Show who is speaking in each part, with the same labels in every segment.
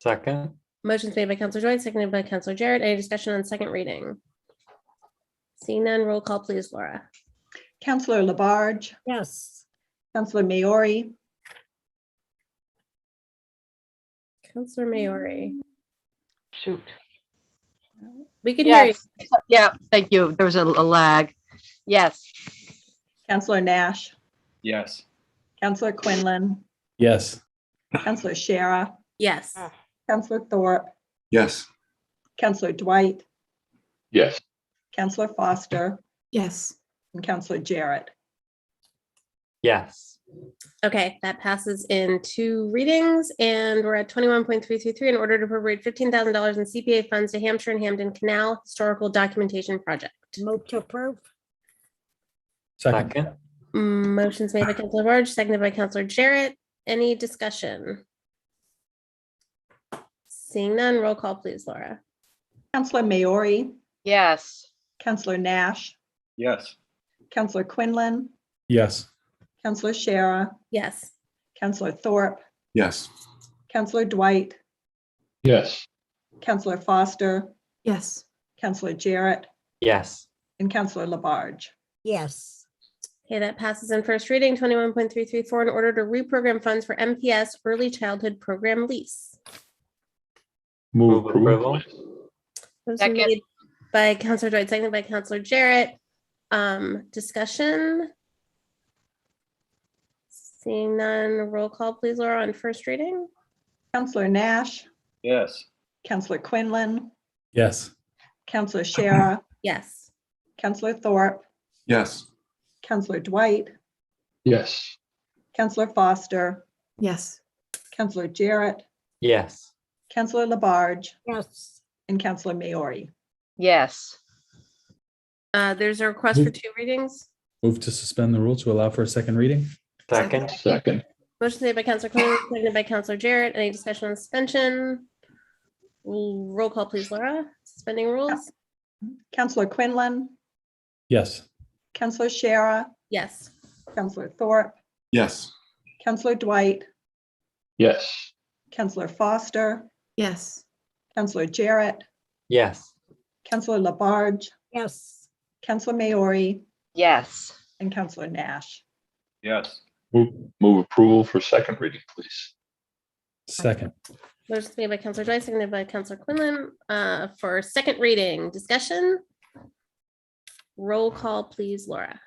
Speaker 1: Second,
Speaker 2: Motion's made by Counselor Dwight, seconded by Counselor Jarrett. Any discussion on second reading? Seeing none, roll call please, Laura.
Speaker 3: Counselor Labarge,
Speaker 4: Yes.
Speaker 3: Counselor Maori,
Speaker 2: Counselor Maori.
Speaker 5: Shoot.
Speaker 2: We can hear you.
Speaker 5: Yes. Yeah, thank you. There was a a lag. Yes,
Speaker 3: Counselor Nash,
Speaker 6: Yes.
Speaker 3: Counselor Quinlan,
Speaker 7: Yes.
Speaker 3: Counselor Shara,
Speaker 2: Yes.
Speaker 3: Counselor Thorpe,
Speaker 7: Yes.
Speaker 3: Counselor Dwight,
Speaker 6: Yes.
Speaker 3: Counselor Foster,
Speaker 8: yes,
Speaker 3: and Counselor Jarrett.
Speaker 1: yes,
Speaker 2: Okay, that passes in two readings and we're at twenty-one point three three three in order to appropriate fifteen thousand dollars in CPA funds to Hampshire and Hamden Canal Historical Documentation Project.
Speaker 4: Move to approve?
Speaker 7: Second.
Speaker 1: second,
Speaker 2: Motion's made by Counselor Barge, seconded by Counselor Jarrett. Any discussion? Seeing none, roll call please, Laura.
Speaker 3: Counselor Maori,
Speaker 5: yes.
Speaker 3: Counselor Nash,
Speaker 6: Yes.
Speaker 3: Counselor Quinlan,
Speaker 7: Yes.
Speaker 3: Counselor Shara,
Speaker 2: Yes.
Speaker 3: Counselor Thorpe,
Speaker 7: Yes.
Speaker 3: Counselor Dwight,
Speaker 6: Yes.
Speaker 3: Counselor Foster,
Speaker 8: yes.
Speaker 3: Counselor Jarrett,
Speaker 1: yes,
Speaker 3: and Counselor Labarge.
Speaker 4: Yes.
Speaker 2: Okay, that passes in first reading, twenty-one point three three four, in order to reprogram funds for MPS Early Childhood Program lease.
Speaker 1: move approval,
Speaker 2: Those are
Speaker 5: Second.
Speaker 2: made By Counselor Dwight, seconded by Counselor Jarrett. Um, discussion? Seeing none, roll call please, Laura, on first reading?
Speaker 3: Counselor Nash,
Speaker 6: Yes.
Speaker 3: Counselor Quinlan,
Speaker 7: Yes.
Speaker 3: Counselor Shara,
Speaker 2: Yes.
Speaker 3: Counselor Thorpe,
Speaker 7: Yes.
Speaker 3: Counselor Dwight,
Speaker 6: Yes.
Speaker 3: Counselor Foster,
Speaker 8: Yes.
Speaker 3: Counselor Jarrett,
Speaker 1: yes,
Speaker 3: Counselor Labarge,
Speaker 4: Yes.
Speaker 3: and Counselor Maori.
Speaker 5: Yes.
Speaker 2: Uh, there's a request for two readings?
Speaker 7: Move to suspend the rule to allow for a second reading?
Speaker 1: second,
Speaker 6: Second.
Speaker 2: Motion made by Counselor Quinlan, seconded by Counselor Jarrett. Any discussion on suspension? Mm, Roll call, please, Laura. Suspending rules?
Speaker 3: Counselor Quinlan,
Speaker 7: Yes.
Speaker 3: Counselor Shara,
Speaker 2: Yes.
Speaker 3: Counselor Thorpe,
Speaker 7: Yes.
Speaker 3: Counselor Dwight,
Speaker 6: Yes.
Speaker 3: Counselor Foster,
Speaker 8: Yes.
Speaker 3: Counselor Jarrett,
Speaker 1: yes,
Speaker 3: Counselor Labarge,
Speaker 4: Yes.
Speaker 3: Counselor Maori,
Speaker 5: Yes.
Speaker 3: and Counselor Nash.
Speaker 6: Yes.
Speaker 9: Move, move approval for second reading, please.
Speaker 7: Second.
Speaker 2: Motion made by Counselor Dwight, seconded by Counselor Quinlan, uh, for second reading. Discussion? Roll call, please, Laura.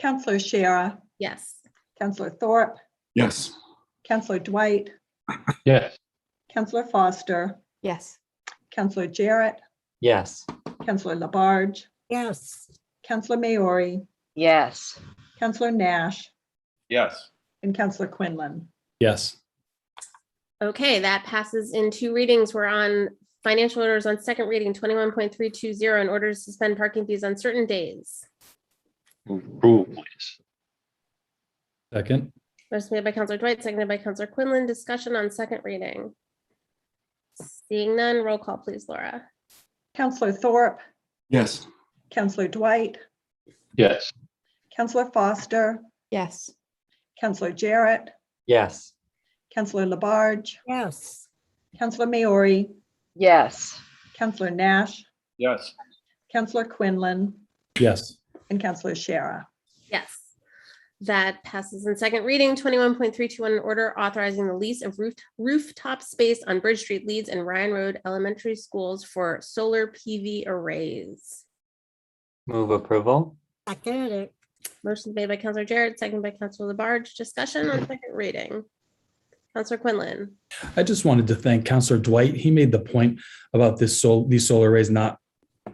Speaker 3: Counselor Shara,
Speaker 2: Yes.
Speaker 3: Counselor Thorpe,
Speaker 7: Yes.
Speaker 3: Counselor Dwight,
Speaker 6: Yes.
Speaker 3: Counselor Foster,
Speaker 8: Yes.
Speaker 3: Counselor Jarrett,
Speaker 1: yes,
Speaker 3: Counselor Labarge,
Speaker 4: Yes.
Speaker 3: Counselor Maori,
Speaker 5: Yes.
Speaker 3: Counselor Nash,
Speaker 6: Yes.
Speaker 3: and Counselor Quinlan.
Speaker 7: Yes.
Speaker 2: Okay, that passes in two readings. We're on financial orders on second reading, twenty-one point three two zero, in order to suspend parking fees on certain days.
Speaker 9: Move approval, please.
Speaker 7: Second.
Speaker 2: Motion made by Counselor Dwight, seconded by Counselor Quinlan. Discussion on second reading. Seeing none, roll call, please, Laura.
Speaker 3: Counselor Thorpe,
Speaker 7: Yes.
Speaker 3: Counselor Dwight,
Speaker 6: Yes.
Speaker 3: Counselor Foster,
Speaker 8: Yes.
Speaker 3: Counselor Jarrett,
Speaker 1: yes,
Speaker 3: Counselor Labarge,
Speaker 4: Yes.
Speaker 3: Counselor Maori,
Speaker 5: Yes.
Speaker 3: Counselor Nash,
Speaker 6: Yes.
Speaker 3: Counselor Quinlan,
Speaker 7: Yes.
Speaker 3: and Counselor Shara.
Speaker 2: Yes. That passes in second reading, twenty-one point three two one, an order authorizing the lease of roof rooftop space on Bridge Street Leeds and Ryan Road Elementary Schools for solar PV arrays.
Speaker 1: move approval,
Speaker 4: Second it.
Speaker 2: Motion made by Counselor Jarrett, seconded by Counselor Labarge. Discussion on second reading. Counselor Quinlan.
Speaker 7: I just wanted to thank Counselor Dwight. He made the point about this sol these solar arrays not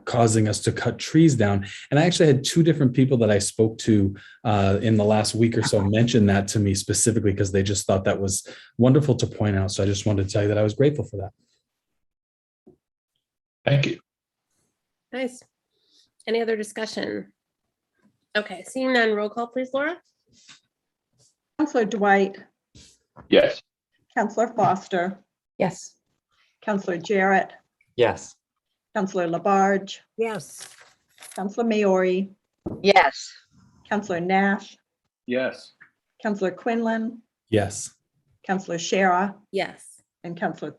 Speaker 7: causing us to cut trees down. And I actually had two different people that I spoke to uh, in the last week or so mention that to me specifically because they just thought that was wonderful to point out. So I just wanted to tell you that I was grateful for that.
Speaker 9: Thank you.
Speaker 2: Nice. Any other discussion? Okay, seeing none, roll call please, Laura.
Speaker 3: Counselor Dwight,
Speaker 9: Yes.
Speaker 3: Counselor Foster,
Speaker 8: Yes.
Speaker 3: Counselor Jarrett,
Speaker 1: yes,
Speaker 3: Counselor Labarge,
Speaker 4: Yes.
Speaker 3: Counselor Maori,
Speaker 5: Yes.
Speaker 3: Counselor Nash,
Speaker 6: Yes.
Speaker 3: Counselor Quinlan,
Speaker 7: Yes.
Speaker 3: Counselor Shara,
Speaker 2: Yes.
Speaker 3: and Counselor